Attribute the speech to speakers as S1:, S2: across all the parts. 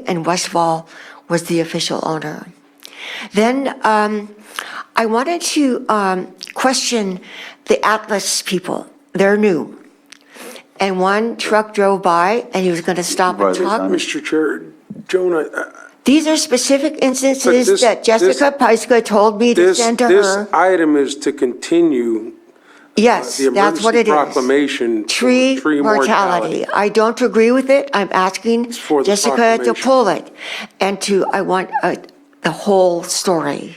S1: and Westfall was the official owner. Then um, I wanted to um, question the Atlas people. They're new. And one truck drove by and he was going to stop and
S2: Right, there's
S1: talk.
S2: not-
S3: Mr. Chair, Joan, I- I-
S1: These are specific
S3: But
S1: instances
S3: this-
S1: that Jessica Pyska told me to
S3: this,
S1: send to
S3: this
S1: her.
S3: item is to continue uh,
S1: Yes,
S3: the
S1: that's what
S3: emergency
S1: it is.
S3: proclamation. for
S1: Tree mortality. I don't agree with it. I'm asking
S3: for the
S1: Jessica to
S3: proclamation.
S1: pull it and to, I want uh, the whole story.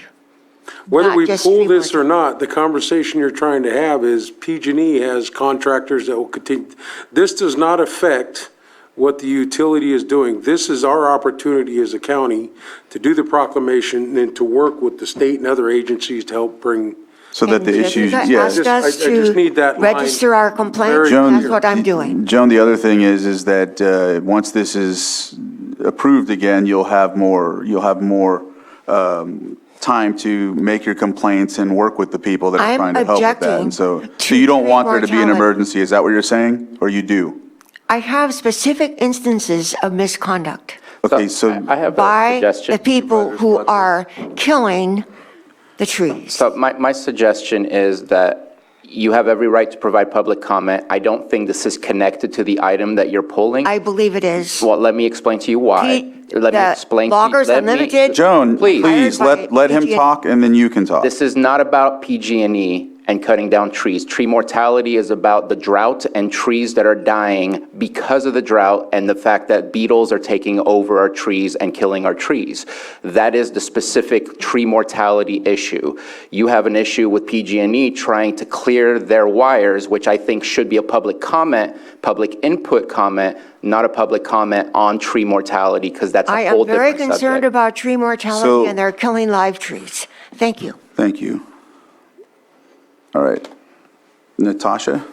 S3: Whether
S1: not
S3: we
S1: just
S3: pull
S1: tree
S3: this or not, the conversation you're trying to have is PG&E E has contractors that will continue. This does not affect what the utility is doing. This is our opportunity as a county to do the proclamation and to work with the state and other agencies to help bring
S2: So that the
S1: And
S2: issues,
S1: Jessica
S2: yes.
S1: asked us
S3: I- I just
S1: to
S3: need that line
S1: Register our complaints,
S3: very
S2: Joan-
S1: that's what I'm doing.
S2: Joan, the other thing is, is that uh, once this is approved again, you'll have more, you'll have more um, time to make your complaints and work with the people that are
S1: I'm
S2: trying to help with that.
S1: objecting
S2: And so, so
S1: to
S2: you don't
S1: tree
S2: want there to be an
S1: mortality.
S2: emergency, is that what you're saying? Or you do?
S1: I have specific instances of misconduct
S2: Okay, so,
S4: I I have a
S1: by
S4: suggestion.
S1: the people who are killing the trees.
S4: So my, my suggestion is that you have every right to provide public comment. I don't think this is connected to the item that you're pulling.
S1: I believe it is.
S4: Well, let me explain to you why.
S1: Pete,
S4: Let me
S1: the
S4: explain. to you-
S1: Loggers
S4: let me-
S1: Unlimited-
S2: Joan,
S4: Please,
S2: please, let, let him
S1: PG&E.
S2: talk and then you can talk.
S4: this is not about PG&E and cutting down trees. Tree mortality is about the drought and trees that are dying because of the drought and the fact that beetles are taking over our trees and killing our trees. That is the specific tree mortality issue. You have an issue with PG&E E trying to clear their wires, which I think should be a public comment, public input comment, not a public comment on tree mortality, because that's
S1: I
S4: a whole
S1: am
S4: different
S1: very
S4: subject.
S1: concerned about tree mortality
S2: So-
S1: and they're killing live trees. Thank you.
S2: Thank you. All right. Natasha?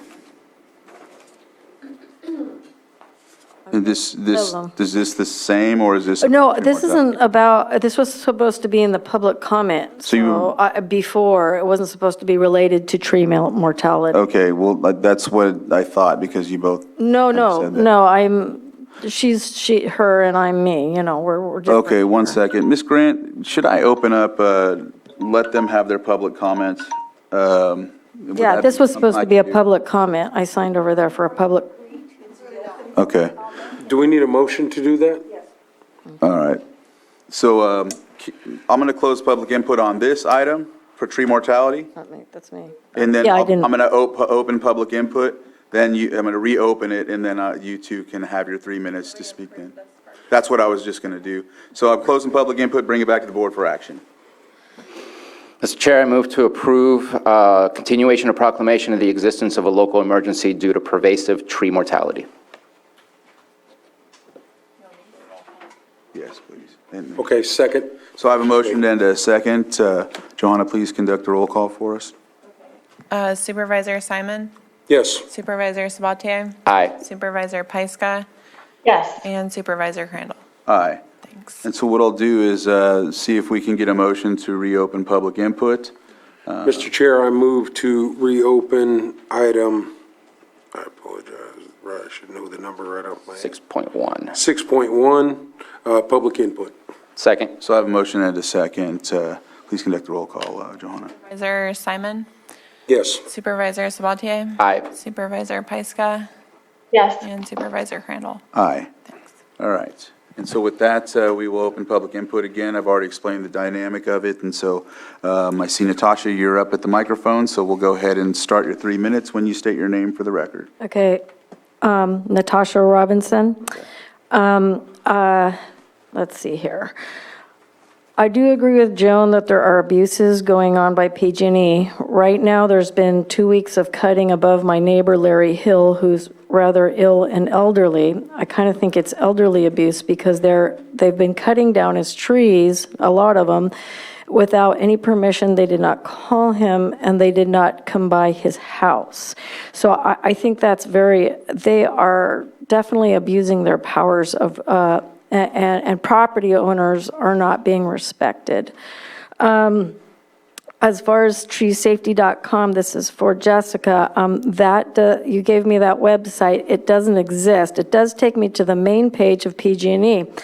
S2: And this, this,
S5: Hello.
S2: is this the same, or is this?
S5: No, this isn't about, this was supposed to be in the public comment,
S2: So you-
S5: so, I- before, it wasn't supposed to be related to tree mel- mortality.
S2: Okay, well, uh, that's what I thought, because you both.
S5: No, no,
S2: said that.
S5: no, I'm, she's, she, her and I'm me, you know, we're, we're different.
S2: Okay, one second. Ms. Grant, should I open up, uh, let them have their public comments? Um, would
S5: Yeah,
S2: that
S5: this was
S2: something
S5: supposed
S2: I
S5: to be a
S2: could do?
S5: public comment. I signed over there for a public,
S2: Okay,
S3: Do we need a motion to do that?
S2: all right. So um, I'm going to close public input on this item for tree mortality.
S5: not me, that's me.
S2: And then
S5: Yeah, I
S2: I'll- I'm
S5: didn't-
S2: going to open public input, then you, I'm going to reopen it, and then uh, you two can have your three minutes to speak then. That's what I was just going to do. So I'm closing public input, bring it back to the board for action.
S4: Mr. Chair, I move to approve uh, continuation of proclamation of the existence of a local emergency due to pervasive tree mortality.
S2: Yes, please. And-
S3: Okay, second.
S2: So I have a motion and a second. Uh, Johanna, please conduct a roll call for us.
S6: Uh, Supervisor Simon,
S3: Yes.
S6: Supervisor Sabatier,
S4: Aye.
S6: Supervisor Pyska,
S7: Yes.
S6: and Supervisor Crandall.
S2: Aye.
S6: Thanks.
S2: And so what I'll do is uh, see if we can get a motion to reopen public input.
S3: Mr. Chair, I move to reopen item, I apologize, I should know the number right off my head.
S4: 6.1.
S3: 6.1, uh, public input.
S4: Second.
S2: So I have a motion and a second. Uh, Please conduct the roll call, uh, Johanna.
S6: Supervisor Simon,
S3: Yes.
S6: Supervisor Sabatier,
S4: Aye.
S6: Supervisor Pyska,
S7: Yes.
S6: and Supervisor Crandall.
S2: Aye. All right. And so with that, uh, we will open public input again. I've already explained the dynamic of it, and so um, I see Natasha, you're up at the microphone, so we'll go ahead and start your three minutes when you state your name for the record.
S5: Okay, um, Natasha Robinson. Um, uh, Let's see here. I do agree with Joan that there are abuses going on by PG&E. E. Right now, there's been two weeks of cutting above my neighbor Larry Hill, who's rather ill and elderly. I kind of think it's elderly abuse because they're, they've been cutting down his trees, a lot of them, without any permission. They did not call him, and they did not come by his house. So I, I think that's very, they are definitely abusing their powers of, uh, a- and, and property owners are not being respected. Um, As far as treesafety.com, this is for Jessica, um, that, uh, you gave me that website, it doesn't exist. It does take me to the main page of PG&E.